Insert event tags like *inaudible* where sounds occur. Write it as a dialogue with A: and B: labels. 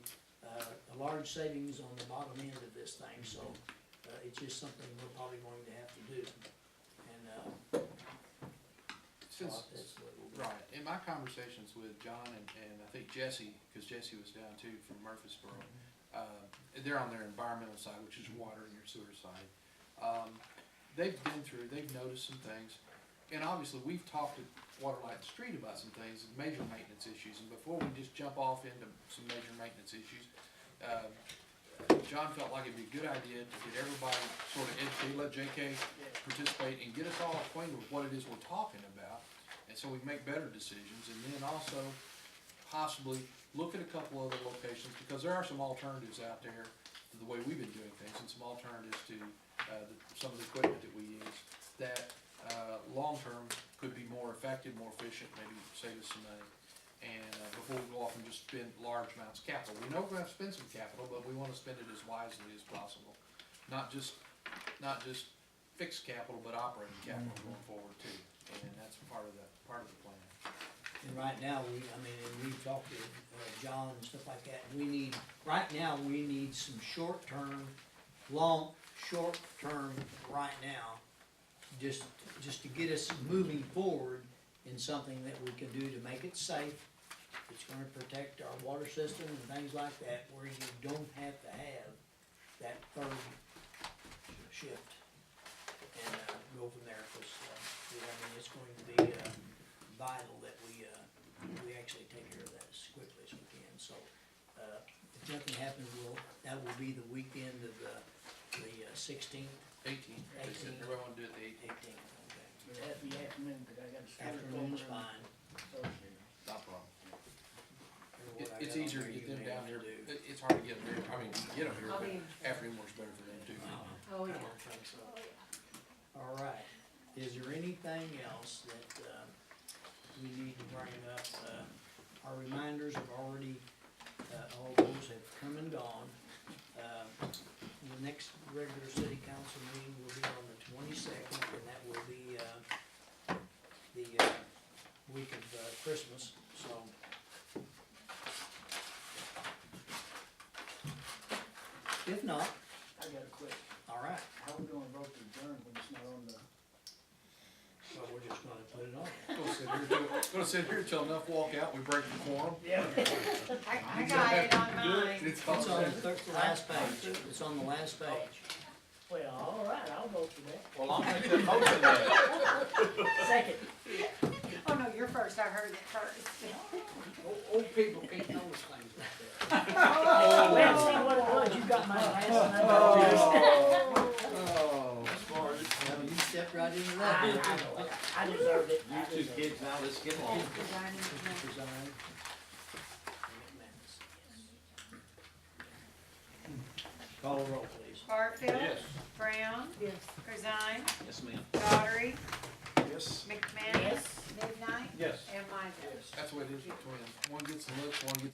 A: uh, large savings on the bottom end of this thing, so, uh, it's just something we're probably going to have to do. And, uh, so
B: Since,
A: that's what we'll do.
B: right, in my conversations with John and, and I think Jesse, because Jesse was down too from Murfreesboro, uh, they're on their environmental side, which is water and your sewer side. Um, they've been through, they've noticed some things, and obviously, we've talked at Waterlight Street about some things, major maintenance issues, and before we just jump off into some major maintenance issues, uh, John felt like it'd be a good idea to get everybody sort of educated, let JK participate and get us all acquainted with what it is we're talking about. And so we make better decisions and then also possibly look at a couple other locations because there are some alternatives out there to the way we've been doing things and some alternatives to, uh, the- some of the equipment that we use that, uh, long-term could be more effective, more efficient, maybe save us some money. And uh, before we go off and just spend large amounts of capital, we know we're gonna have to spend some capital, but we wanna spend it as wisely as possible. Not just, not just fix capital, but operating capital going forward too, and that's part of the, part of the plan.
A: And right now, we, I mean, and we've talked to, uh, John and stuff like that, we need, right now, we need some short-term, long, short-term, right now, just, just to get us moving forward in something that we can do to make it safe. It's gonna protect our water system and things like that, where you don't have to have that third shift. And, uh, go from there, cause, uh, yeah, I mean, it's going to be, uh, vital that we, uh, we actually take care of that as quickly as we can, so, uh, if nothing happens, we'll, that will be the weekend of the, the uh, sixteenth,
B: Eighteen, they said
A: Eighteen.
B: everybody wanna do it the eighteenth,
A: eighteenth, okay.
C: But that'd be afternoon, 'cause I got a school.
A: Afternoon's
C: program
A: fine.
C: Thursday.
B: not a problem.
A: And what
B: It,
A: I got
B: it's
A: on
B: easier
A: there,
B: to
A: you
B: get them
A: may
B: down
A: have
B: here,
A: to do.
B: It- it's hard to get them here, I mean, you can get them here,
D: I mean-
B: but afternoon works better for them too.
A: Uh-huh. *laughs*
D: Oh, yeah.
A: All right, is there anything else that, uh, we need to bring up? Uh, Our reminders have already, uh, all those have come and gone. Uh, The next regular city council meeting will be on the twenty-second, and that will be, uh, the, uh, week of, uh, Christmas, so. If not,
C: I got a question.
A: all right,
C: How we gonna vote to adjourn when it's not on the,
A: well, we're just gonna put it on.
B: Gonna sit here till- Gonna sit here till enough walk out, we break the quorum.
D: I, I got it on mine.
B: It's
A: It's on the
B: awesome.
A: third, the last page, it's on the last page.
C: well, all right, I'll vote for that.
B: Well, I'll make that motion then.
C: Second.
D: Oh, no, you're first, I heard it first.
A: Old people can't know things like that.
C: Well, see what it was, you got my last and I got yours.
E: Oh,
A: Now, you stepped right into
C: I
A: that.
C: know it. I deserved it. I
E: you two
C: deserved it.
E: kids now, let's get along.
D: That's the dining room.
A: Resign. Call the roll, please.
D: Barfield.
E: Yes.
D: Brown. Yes. Corzine.
E: Yes, ma'am.
D: Daughtry.
C: Yes.
D: McManus. Midnight.
E: Yes.
D: And Mizel.
B: That's what it is between, them. one gets the looks, one gets